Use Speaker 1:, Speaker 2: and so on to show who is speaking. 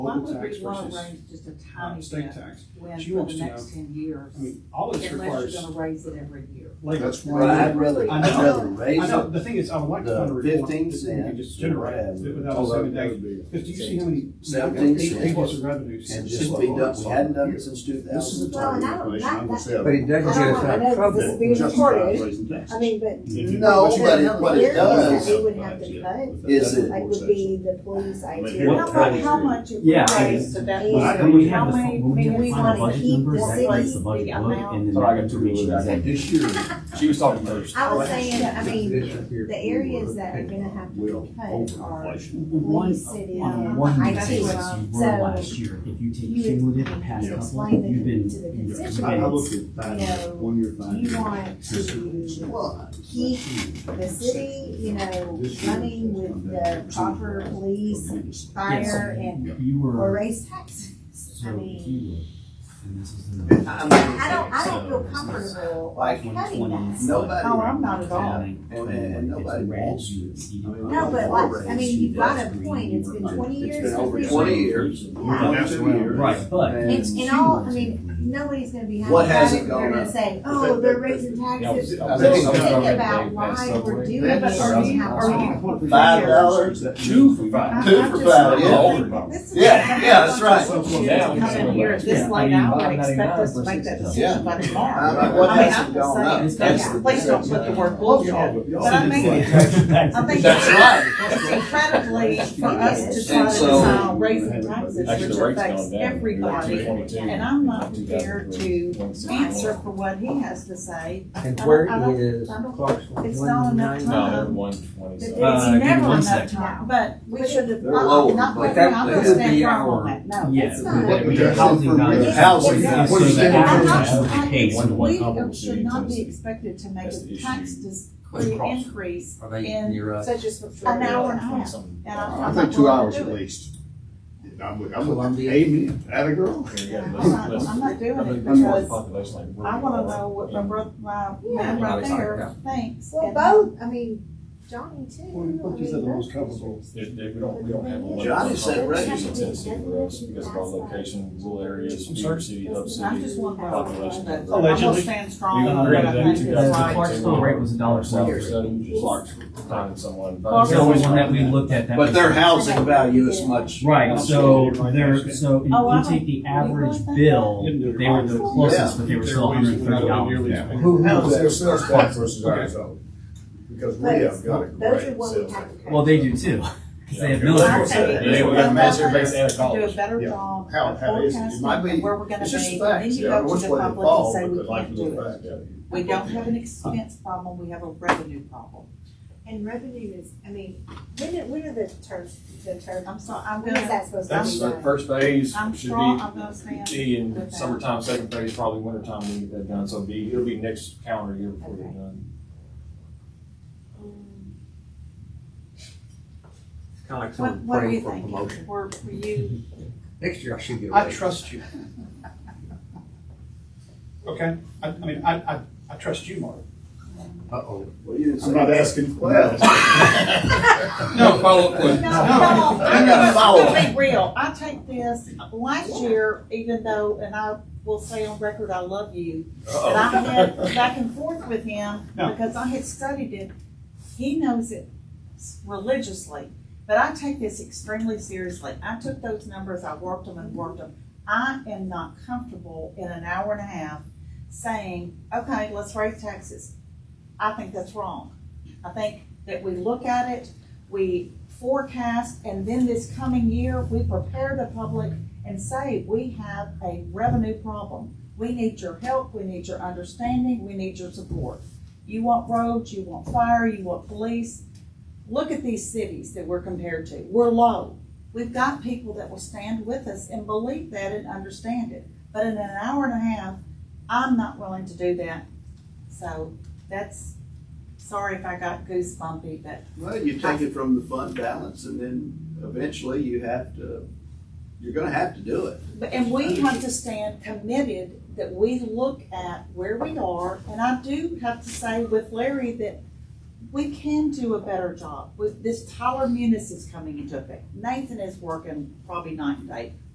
Speaker 1: why
Speaker 2: local
Speaker 1: would
Speaker 2: tax
Speaker 1: we wanna
Speaker 2: versus
Speaker 1: raise just a
Speaker 2: uh,
Speaker 1: tiny
Speaker 2: state
Speaker 1: bit
Speaker 2: tax.
Speaker 1: when
Speaker 2: She
Speaker 1: for
Speaker 2: wants
Speaker 1: the
Speaker 2: to
Speaker 1: next ten years?
Speaker 2: I mean, all this
Speaker 1: Unless
Speaker 2: requires
Speaker 1: you're gonna raise it every year.
Speaker 2: labor.
Speaker 3: That's
Speaker 4: But I'd
Speaker 3: why,
Speaker 4: rather,
Speaker 2: I
Speaker 4: I'd
Speaker 2: know.
Speaker 4: rather
Speaker 2: I
Speaker 4: raise
Speaker 2: know,
Speaker 4: it.
Speaker 2: the thing is, I would like to
Speaker 4: The
Speaker 2: find a report
Speaker 4: 15
Speaker 2: that we can
Speaker 4: cents
Speaker 2: just generate
Speaker 4: grab.
Speaker 2: it without us
Speaker 3: although
Speaker 2: having
Speaker 3: that would
Speaker 2: to,
Speaker 3: be.
Speaker 2: because do you see how many?
Speaker 4: Seventeen
Speaker 2: eight
Speaker 4: cents.
Speaker 2: people's revenues.
Speaker 4: And just be done, we hadn't done it since two
Speaker 3: This
Speaker 4: thousand.
Speaker 3: is the
Speaker 5: Well,
Speaker 3: type
Speaker 5: and I
Speaker 3: of
Speaker 5: don't
Speaker 3: information I'm
Speaker 5: like
Speaker 3: gonna sell.
Speaker 6: But it doesn't get us
Speaker 5: I
Speaker 6: out
Speaker 5: know
Speaker 6: of
Speaker 5: this
Speaker 6: trouble.
Speaker 5: is being recorded, I
Speaker 3: recorded.
Speaker 5: mean, but
Speaker 4: No, but it- what it does
Speaker 5: They would have to cut.
Speaker 4: is it-
Speaker 5: like would be the police, IT.
Speaker 1: We don't know
Speaker 6: Right.
Speaker 1: how much it
Speaker 6: Yeah,
Speaker 1: would
Speaker 6: I
Speaker 1: raise to that.
Speaker 5: Well, I
Speaker 1: point.
Speaker 5: think
Speaker 6: we
Speaker 1: How
Speaker 6: have the
Speaker 1: many
Speaker 6: fu- we have
Speaker 1: million
Speaker 6: the
Speaker 1: wanna
Speaker 6: final budget
Speaker 1: keep
Speaker 6: numbers,
Speaker 1: the
Speaker 6: that makes the
Speaker 1: city,
Speaker 6: budget
Speaker 1: the
Speaker 6: look,
Speaker 1: amount.
Speaker 6: and then
Speaker 7: Sorry, I
Speaker 6: we
Speaker 7: got
Speaker 6: have to
Speaker 7: too
Speaker 6: reach
Speaker 7: much back.
Speaker 6: exact-
Speaker 3: This year,
Speaker 7: She was talking first.
Speaker 5: I was saying, I mean,
Speaker 6: This up here,
Speaker 5: the areas that are gonna have to
Speaker 3: will
Speaker 5: be cut are
Speaker 3: overinflation.
Speaker 6: One,
Speaker 5: police, city,
Speaker 6: on one
Speaker 5: IT.
Speaker 6: basis, you were
Speaker 5: So,
Speaker 6: last year, if you take
Speaker 5: you would-
Speaker 6: cumulative the past
Speaker 5: you
Speaker 6: couple,
Speaker 5: explain the-
Speaker 6: you've been.
Speaker 5: to the
Speaker 6: you've
Speaker 5: constituents.
Speaker 3: I, I
Speaker 6: been-
Speaker 3: looked at five years, one year,
Speaker 5: Do
Speaker 3: five
Speaker 5: you
Speaker 3: years.
Speaker 5: want to, well, keep the city, you know, running with the proper police, fire, and,
Speaker 6: You
Speaker 5: or
Speaker 6: were,
Speaker 5: raise taxes?
Speaker 6: so
Speaker 5: I
Speaker 6: if
Speaker 5: mean,
Speaker 6: you were, and this is the.
Speaker 4: I mean-
Speaker 5: I don't, I don't feel comfortable like cutting that.
Speaker 4: Nobody.
Speaker 5: Oh, I'm not at all.
Speaker 4: And, and nobody wants you.
Speaker 5: No, but like, I mean, you've got a point, it's been twenty
Speaker 3: It's
Speaker 5: years.
Speaker 3: been
Speaker 5: since
Speaker 3: over
Speaker 5: we-
Speaker 4: 20 years.
Speaker 5: Yeah.
Speaker 3: That's the way I'm-
Speaker 6: Right, but
Speaker 5: And,
Speaker 4: And
Speaker 5: and all, I mean, nobody's gonna be happy
Speaker 4: What
Speaker 5: about
Speaker 4: hasn't
Speaker 5: it, they're
Speaker 4: gone
Speaker 5: gonna
Speaker 4: up?
Speaker 5: say, oh, they're raising taxes.
Speaker 4: I
Speaker 5: But
Speaker 4: think
Speaker 5: think
Speaker 4: so.
Speaker 5: about why we're doing
Speaker 1: Yeah,
Speaker 5: it
Speaker 1: but are
Speaker 5: and
Speaker 1: you,
Speaker 5: how
Speaker 1: are you?
Speaker 5: wrong.
Speaker 4: five dollars.
Speaker 7: Two for five.
Speaker 4: Two for five,
Speaker 7: yeah.
Speaker 4: Yeah, yeah, that's right.
Speaker 1: Come in here at this late hour and expect us to make that decision by
Speaker 4: I mean,
Speaker 1: tomorrow.
Speaker 4: what
Speaker 1: I mean,
Speaker 4: hasn't
Speaker 1: I'm just
Speaker 4: gone up?
Speaker 1: saying,
Speaker 4: That's the
Speaker 1: Please don't put the word bullshit. But I think, I think
Speaker 4: That's right.
Speaker 1: it's incredibly for us to try
Speaker 4: And
Speaker 1: to
Speaker 4: so-
Speaker 1: decide raising taxes,
Speaker 7: Actually,
Speaker 1: which
Speaker 7: the rate's gone
Speaker 1: affects
Speaker 7: down.
Speaker 1: everybody. And I'm not prepared to answer for what he has to say.
Speaker 6: And
Speaker 1: I
Speaker 6: where
Speaker 1: don't- I don't-
Speaker 6: is
Speaker 1: I don't-
Speaker 6: Clarksville?
Speaker 1: it's not enough
Speaker 6: 190?
Speaker 1: time.
Speaker 7: No, one twenty.
Speaker 5: But
Speaker 7: So
Speaker 5: it's
Speaker 6: Uh, give me
Speaker 1: never
Speaker 6: one
Speaker 1: enough
Speaker 6: sec.
Speaker 1: time, but we should have,
Speaker 4: They're lower,
Speaker 1: I'm not
Speaker 4: but
Speaker 1: going
Speaker 6: that-
Speaker 1: I'm
Speaker 6: that
Speaker 1: gonna
Speaker 6: would be
Speaker 1: stand firm
Speaker 6: our-
Speaker 1: on that, no,
Speaker 6: Yeah.
Speaker 1: it's
Speaker 5: not.
Speaker 6: the-
Speaker 5: What
Speaker 6: the
Speaker 3: does
Speaker 6: Housing
Speaker 3: it
Speaker 6: value.
Speaker 3: for housing?
Speaker 6: Yeah,
Speaker 3: What
Speaker 6: So
Speaker 3: does
Speaker 6: the
Speaker 1: I'm
Speaker 3: that
Speaker 6: average
Speaker 1: not,
Speaker 6: has to
Speaker 1: I-
Speaker 6: pay one to one
Speaker 1: we
Speaker 7: comparable
Speaker 1: should
Speaker 7: to
Speaker 1: not be
Speaker 7: Tennessee.
Speaker 1: expected to make
Speaker 7: That's
Speaker 1: a
Speaker 7: the
Speaker 1: tax
Speaker 7: issue.
Speaker 1: dis-
Speaker 6: With Clarksville.
Speaker 1: increase,
Speaker 6: Are
Speaker 1: they
Speaker 6: near us?
Speaker 5: Such as
Speaker 1: an hour and a half.
Speaker 7: something.
Speaker 1: And I'm-
Speaker 3: I
Speaker 1: I'm
Speaker 3: think
Speaker 1: not
Speaker 3: two
Speaker 1: willing to
Speaker 3: hours
Speaker 1: do
Speaker 3: at
Speaker 1: it.
Speaker 3: least. I'm with, I'm with, amen, at a girl.
Speaker 7: Yeah,
Speaker 1: I'm
Speaker 7: let's-
Speaker 1: not,
Speaker 7: let's-
Speaker 1: I'm not doing
Speaker 7: I
Speaker 1: it
Speaker 7: think there's more
Speaker 1: because
Speaker 7: population like we're-
Speaker 1: I wanna know what my brother, my
Speaker 5: Yeah.
Speaker 1: man right
Speaker 7: Yeah.
Speaker 1: there thinks.
Speaker 5: Well,
Speaker 1: and-
Speaker 5: both, I mean, Johnny too.
Speaker 2: Well, what you
Speaker 5: I
Speaker 2: said
Speaker 5: mean,
Speaker 2: the most
Speaker 5: both
Speaker 2: comparable.
Speaker 5: districts.
Speaker 7: There- there- We don't, we don't have. a lot of
Speaker 4: Johnny said raise
Speaker 7: population in
Speaker 4: it.
Speaker 7: Tennessee for us because of our location, rural areas, bigger city, hub
Speaker 1: Listen, I just
Speaker 7: city.
Speaker 1: want to have a
Speaker 7: Population.
Speaker 1: but I'm gonna
Speaker 2: Allegedly.
Speaker 1: stand strong
Speaker 7: We
Speaker 1: on what I
Speaker 7: agreed
Speaker 1: think
Speaker 7: that two
Speaker 1: is
Speaker 7: thousand
Speaker 1: right.
Speaker 7: and
Speaker 6: Clarksville rate was a dollar
Speaker 7: Dollar
Speaker 6: salary.
Speaker 7: seven, just like finding someone.
Speaker 1: Clarksville-
Speaker 6: The only one that we looked at that.
Speaker 4: But
Speaker 6: was-
Speaker 4: their housing value is much.
Speaker 6: Right, so they're, so if
Speaker 1: Oh, I
Speaker 6: you
Speaker 1: don't-
Speaker 6: take the
Speaker 1: you
Speaker 6: average
Speaker 1: really think
Speaker 6: bill,
Speaker 2: that?
Speaker 6: they were the closest, but they were still hundred and thirty dollars.
Speaker 3: Who
Speaker 8: How's their
Speaker 3: houses?
Speaker 8: sales tax versus ours though? Because we
Speaker 5: But
Speaker 8: have
Speaker 5: it's,
Speaker 8: got a
Speaker 5: those are
Speaker 8: great
Speaker 5: what we
Speaker 8: sales
Speaker 5: have
Speaker 8: tax.
Speaker 5: to cut.
Speaker 6: Well, they do too, 'cause they have military.
Speaker 1: I think
Speaker 7: Yeah, we got a master base and a
Speaker 1: do a
Speaker 7: college.
Speaker 1: better
Speaker 8: Yeah.
Speaker 1: job
Speaker 8: How-
Speaker 1: of
Speaker 8: how is it? It
Speaker 1: forecasting
Speaker 8: might be-
Speaker 1: and where we're gonna
Speaker 8: It's just
Speaker 1: be, and then
Speaker 8: facts,
Speaker 1: you
Speaker 8: yeah,
Speaker 1: go
Speaker 8: which
Speaker 1: to the
Speaker 8: way they
Speaker 1: public and
Speaker 8: fall,
Speaker 1: say
Speaker 8: but
Speaker 1: we
Speaker 8: the
Speaker 1: can't
Speaker 8: likelihood
Speaker 1: do it.
Speaker 8: fact.
Speaker 1: We don't have an expense problem, we have a revenue problem.
Speaker 5: And revenue is, I mean, when, are- when are the terms, the terms,
Speaker 1: I'm sorry, I'm
Speaker 5: when is
Speaker 1: gonna,
Speaker 5: that supposed to
Speaker 7: That's
Speaker 5: be
Speaker 7: the
Speaker 5: done?
Speaker 7: first phase
Speaker 1: I'm
Speaker 7: should
Speaker 1: strong,
Speaker 7: be
Speaker 1: I'm gonna stand.
Speaker 7: D in summertime, second phase, probably wintertime, we get that done, so it'll be, it'll be next calendar year before they're
Speaker 5: Okay.
Speaker 7: done.
Speaker 6: Kind of like
Speaker 1: What, what do you think? Were, were you,
Speaker 6: Next year I should get
Speaker 2: I trust you. Okay, I, I mean, I, I, I trust you, Mark.
Speaker 6: Uh-oh.
Speaker 4: Well, you didn't
Speaker 3: I'm
Speaker 4: say.
Speaker 3: not asking.
Speaker 4: Well.
Speaker 7: No, follow
Speaker 1: no, no,
Speaker 4: I gotta follow
Speaker 1: I'm gonna
Speaker 4: it.
Speaker 1: be real, I take this, last year, even though, and I will say on record, I love you, And I had back and forth with him
Speaker 2: No.
Speaker 1: because I had studied it. He knows it religiously, but I take this extremely seriously. I took those numbers, I worked them and worked them. I am not comfortable in an hour and a half saying, okay, let's raise taxes. I think that's wrong. I think that we look at it, we forecast, and then this coming year, we prepare the public and say, we have a revenue problem. We need your help, we need your understanding, we need your support. You want roads, you want fire, you want police. Look at these cities that we're compared to. We're low. We've got people that will stand with us and believe that and understand it. But in an hour and a half, I'm not willing to do that. So that's, sorry if I got goosebumpy, but
Speaker 4: Well, you take it from the fund balance and then eventually you have to, you're gonna have to do it.
Speaker 1: But- And we have to stand committed that we look at where we are, and I do have to say with Larry that we can do a better job. With this Tyler Munis is coming into effect. Nathan is working probably night and day.